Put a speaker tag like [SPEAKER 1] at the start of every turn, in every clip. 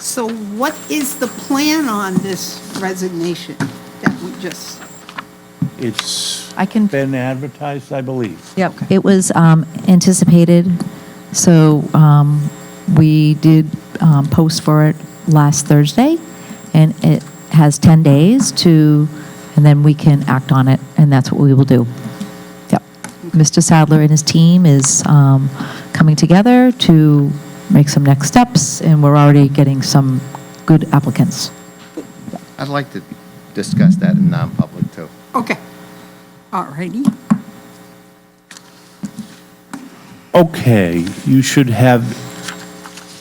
[SPEAKER 1] So what is the plan on this resignation that we just,
[SPEAKER 2] It's
[SPEAKER 3] I can-
[SPEAKER 2] been advertised, I believe.
[SPEAKER 3] Yep, it was um, anticipated, so um, we did um, post for it last Thursday, and it has 10 days to, and then we can act on it, and that's what we will do. Yep. Mr. Sadler and his team is um, coming together to make some next steps, and we're already getting some good applicants.
[SPEAKER 4] I'd like to discuss that in non-public too.
[SPEAKER 1] okay, all righty.
[SPEAKER 2] Okay, you should have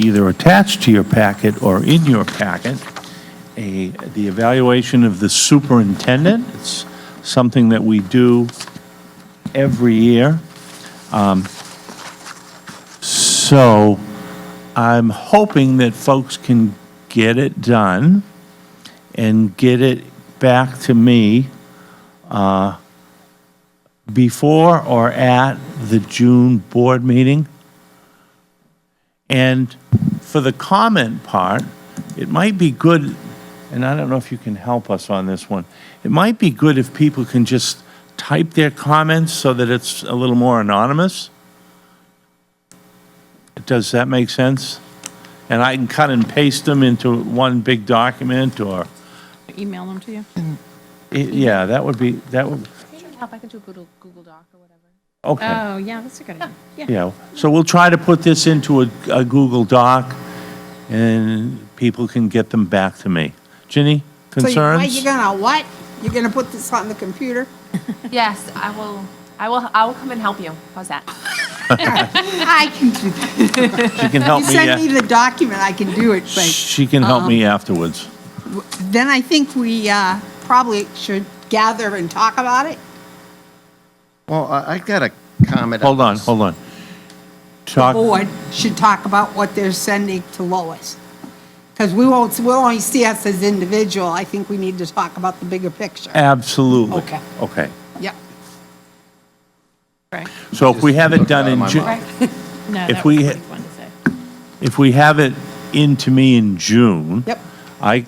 [SPEAKER 2] either attached to your packet or in your packet, a, the evaluation of the superintendent. It's something that we do every year. Um, So I'm hoping that folks can get it done and get it back to me before or at the June board meeting. And for the comment part, it might be good, and I don't know if you can help us on this one, it might be good if people can just type their comments so that it's a little more anonymous. Does that make sense? And I can cut and paste them into one big document or,
[SPEAKER 5] Email them to you?
[SPEAKER 2] i- yeah, that would be, that would,
[SPEAKER 5] Help, I can do a Google, Google Doc or whatever.
[SPEAKER 2] okay.
[SPEAKER 6] Um,
[SPEAKER 5] Oh, yeah, that's a good idea. Yeah,
[SPEAKER 2] Yeah, so we'll try to put this into a, a Google Doc, and people can get them back to me. Ginny,
[SPEAKER 1] So you-
[SPEAKER 2] concerns?
[SPEAKER 1] you're gonna what? You're gonna put this on the computer?
[SPEAKER 6] Yes, I will, I will, I will come and help you. How's that?
[SPEAKER 1] I can do that.
[SPEAKER 2] She can help
[SPEAKER 1] You
[SPEAKER 2] me,
[SPEAKER 1] send me Um,
[SPEAKER 2] a-
[SPEAKER 1] the document, I can do it, but
[SPEAKER 2] she can help me afterwards.
[SPEAKER 1] then I think we uh, probably should gather and talk about it.
[SPEAKER 4] Well, I I got a comment.
[SPEAKER 2] Hold on, hold on. Talk,
[SPEAKER 1] Board should talk about what they're sending to Lois. Because we won't, we'll only see us as individual. I think we need to talk about the bigger picture.
[SPEAKER 2] absolutely.
[SPEAKER 1] Okay.
[SPEAKER 2] Okay,
[SPEAKER 1] Yep.
[SPEAKER 5] right.
[SPEAKER 2] so if we have it
[SPEAKER 4] Just
[SPEAKER 2] done
[SPEAKER 4] out of
[SPEAKER 2] in
[SPEAKER 4] my
[SPEAKER 2] June,
[SPEAKER 4] mind.
[SPEAKER 5] No,
[SPEAKER 2] If
[SPEAKER 5] that
[SPEAKER 2] we
[SPEAKER 5] would be
[SPEAKER 2] hit-
[SPEAKER 5] fun to say.
[SPEAKER 2] if we have it into me in June.
[SPEAKER 1] Yep.
[SPEAKER 2] I,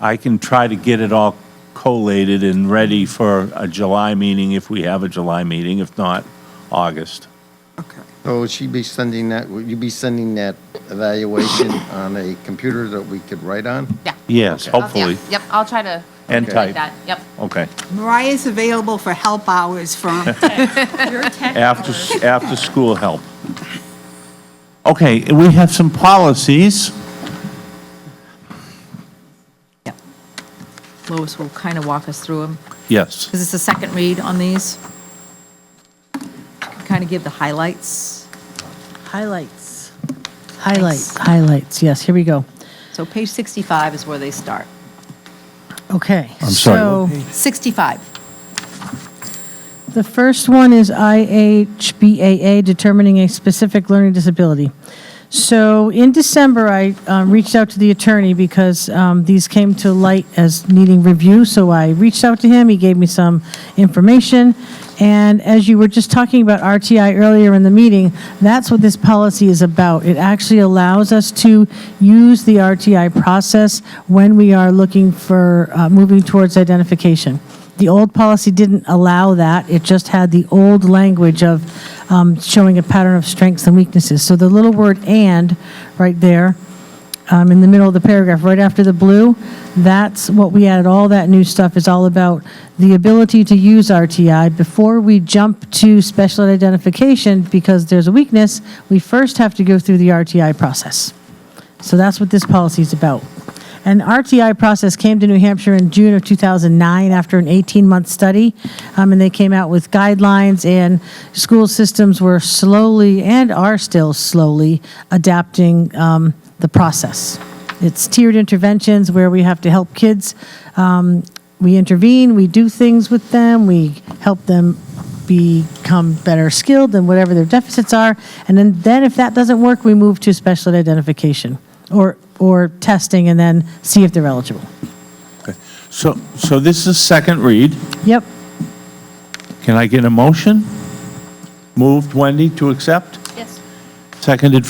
[SPEAKER 2] I can try to get it all collated and ready for a July meeting, if we have a July meeting, if not, August.
[SPEAKER 1] Okay.
[SPEAKER 4] So would she be sending that, would you be sending that evaluation on a computer that we could write on?
[SPEAKER 6] Yeah.
[SPEAKER 2] Yes,
[SPEAKER 6] I'll- yeah,
[SPEAKER 2] hopefully.
[SPEAKER 6] Yep, I'll try to.
[SPEAKER 2] And
[SPEAKER 6] manipulate
[SPEAKER 2] type.
[SPEAKER 6] that. Yep.
[SPEAKER 2] Okay.
[SPEAKER 1] Mariah's available for help hours from
[SPEAKER 2] After, after school help. Okay, we have some policies.
[SPEAKER 3] Lois will kind of walk us through them.
[SPEAKER 2] Yes.
[SPEAKER 3] because it's the second read on these. Kind of give the highlights.
[SPEAKER 7] Highlights. Highlights, highlights, yes, here we go.
[SPEAKER 3] So page 65 is where they start.
[SPEAKER 7] Okay.
[SPEAKER 2] I'm sorry, what
[SPEAKER 7] So
[SPEAKER 3] 65.
[SPEAKER 7] the first one is IHBAA, determining a specific learning disability. So in December, I uh, reached out to the attorney because um, these came to light as needing review. So I reached out to him, he gave me some information. And as you were just talking about RTI earlier in the meeting, that's what this policy is about. It actually allows us to use the RTI process when we are looking for, uh, moving towards identification. The old policy didn't allow that, it just had the old language of um, showing a pattern of strengths and weaknesses. So the little word "and" right there, um, in the middle of the paragraph, right after the blue, that's what we added, all that new stuff is all about the ability to use RTI. Before we jump to special ed identification, because there's a weakness, we first have to go through the RTI process. So that's what this policy is about. An RTI process came to New Hampshire in June of 2009 after an 18-month study, um, and they came out with guidelines, and school systems were slowly, and are still slowly, adapting um, the process. It's tiered interventions where we have to help kids. um, We intervene, we do things with them, we help them become better skilled in whatever their deficits are. And then, then if that doesn't work, we move to special ed identification or, or testing and then see if they're eligible.
[SPEAKER 2] So, so this is second read.
[SPEAKER 7] Yep.
[SPEAKER 2] Can I get a motion? Moved, Wendy, to accept?
[SPEAKER 6] Yes.
[SPEAKER 2] Seconded,